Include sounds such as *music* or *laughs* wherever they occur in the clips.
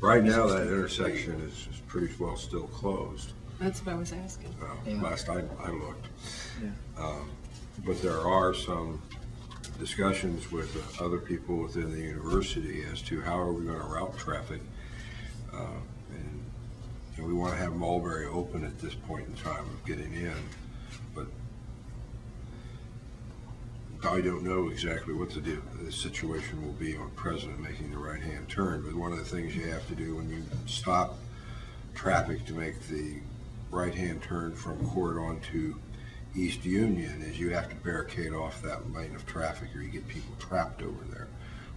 Right now, that intersection is, is pretty well still closed, That's what I was asking. uh, Yeah. last I, I looked. Yeah. Um, But there are some discussions with other people within the university as to how are we gonna route traffic? Uh, And, and we wanna have Mulberry open at this point in time of getting in, but I don't know exactly what the deal, the situation will be on President making the right-hand turn, but one of the things you have to do when you stop traffic to make the right-hand turn from Court onto East Union is you have to barricade off that lane of traffic or you get people trapped over there,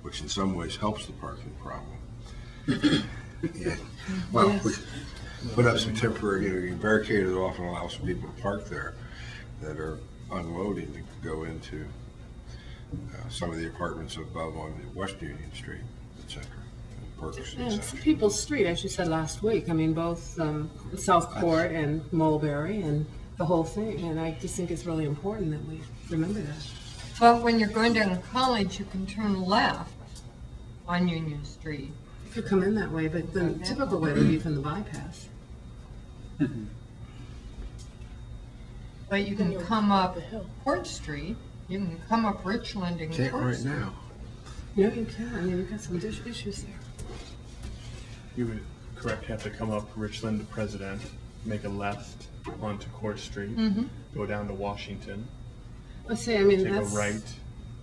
which in some ways helps the parking problem. Yeah. Well, we put up some temporary, you know, you barricade it off and allow some people to park there that are unloading to go into uh, some of the apartments above on West Union Street, et cetera, and Perkins, Yeah, et it's cetera. people's street, as you said last week. I mean, both um, South Court and Mulberry and the whole thing. And I just think it's really important that we remember that. But when you're going down to college, you can turn left on Union Street. You could come in that way, but the typical way would be from the bypass. But you can come up Court Street, you can come up Richland and Can't Court right Street. now. You know, you can. I mean, you've got some dis- issues there. You would correct, have to come up Richland to President, make a left onto Court Street, Mm-hmm. go down to Washington, I say, I mean, take a that's. right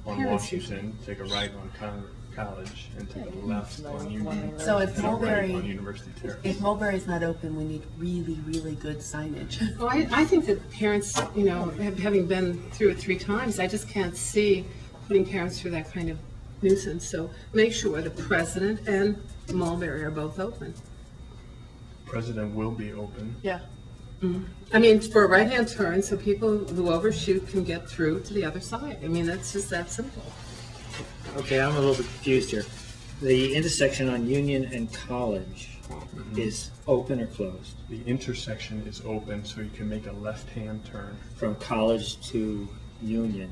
on Parents Washington, take a right on Con- College, and take a left on Union. So if and a right Mulberry- On University Terrace. If Mulberry's not open, we need really, really good signage. Well, I, I think that parents, you know, have- having been through it three times, I just can't see putting parents through that kind of nuisance. So make sure the president and Mulberry are both open. President will be open. Yeah. I mean, for a right-hand turn, so people who overshoot can get through to the other side. I mean, that's just that simple. Okay, I'm a little bit confused here. The intersection on Union and College Mm-hmm. is open or closed The intersection is open, so you can make a left-hand turn from College to Union,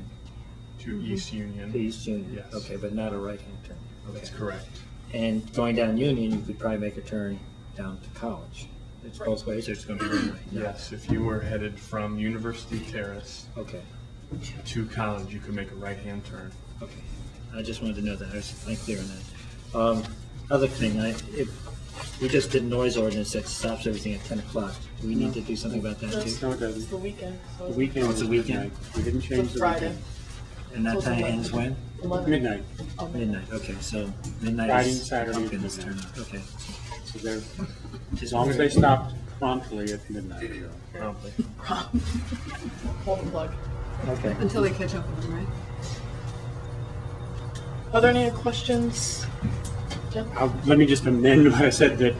to Mm-hmm. East to Union. East Union? Yes. Okay, but not a right-hand turn? That's Okay. correct. And going down Union, you could probably make a turn down to College. It's both ways, or it's going to be one way? No. Yes, if you were headed from University Terrace Okay, to College, you could make a right-hand turn. okay. I just wanted to know that, I was unclear on that. Um, Other thing, I, if, we just did noise ordinance that stops everything at 10 o'clock. Do we need to do something about that too? No, it doesn't. the weekend. so The weekend. Oh, it's a is weekend? midnight. We didn't Till change the Friday. weekend. And that time ends when? Midnight, Midnight, okay, so midnight Friday, is. Saturday, okay, let's midnight. turn it, Okay. so they're, as long as they stopped promptly at midnight. Promptly. Pull the plug. Okay. Until they catch up with them, right? Are there any other questions? I'll, let me just amend what I said that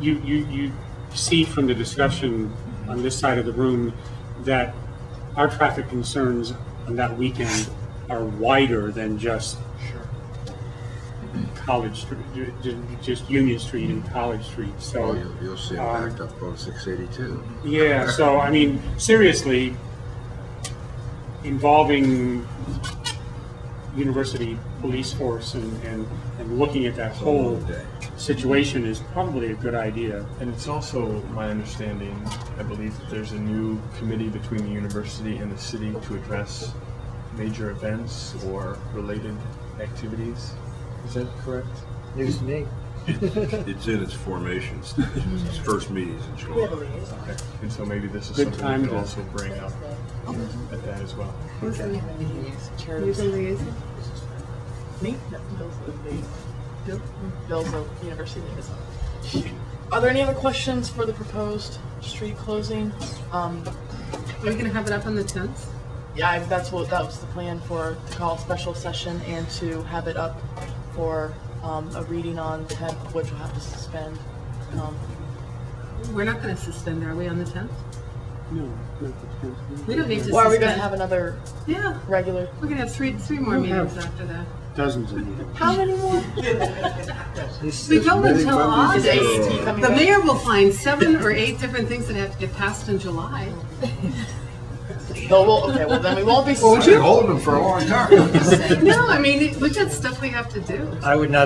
you, you, you see from the discussion on this side of the room that our traffic concerns on that weekend are wider than just Sure. College, Street- ju- ju- just Union Street and College Street, so. Oh, you'll, you'll see it Um, backed up on six eighty-two. Yeah, so I mean, seriously, involving university police force and, and, and looking at that whole situation is probably a good idea. And it's also my understanding, I believe, that there's a new committee between the university and the city to address major events or related activities. Is that correct? News to me. It's in its formation stage, its first meetings in July. Okay. And so maybe this is Good something time we could to- also bring up at that as well. Who's the who's Chairs. the liaison? Me? No, Bill's the, Bill? Bill's the university liaison. Are there any other questions for the proposed street closing? Um, Are you gonna have it up on the tenth? yeah, I- that's what, that was the plan for, to call a special session and to have it up for, um, a reading on the tenth, which we'll have to suspend. Um, We're not gonna suspend, are we, on the tenth? No, not the tenth. We don't need to suspend. Or are we gonna have another Yeah, regular? we're gonna have three, three more meetings after that. Dozens of meetings. How many *laughs* more? We many go until members August. Is AET Sure. coming The back? mayor will find seven or eight different things that have to get passed in July. Well, well, okay, well, then we won't be. *laughs* I've been holding them for a long time. No, I mean, we got stuff we have to do. I would not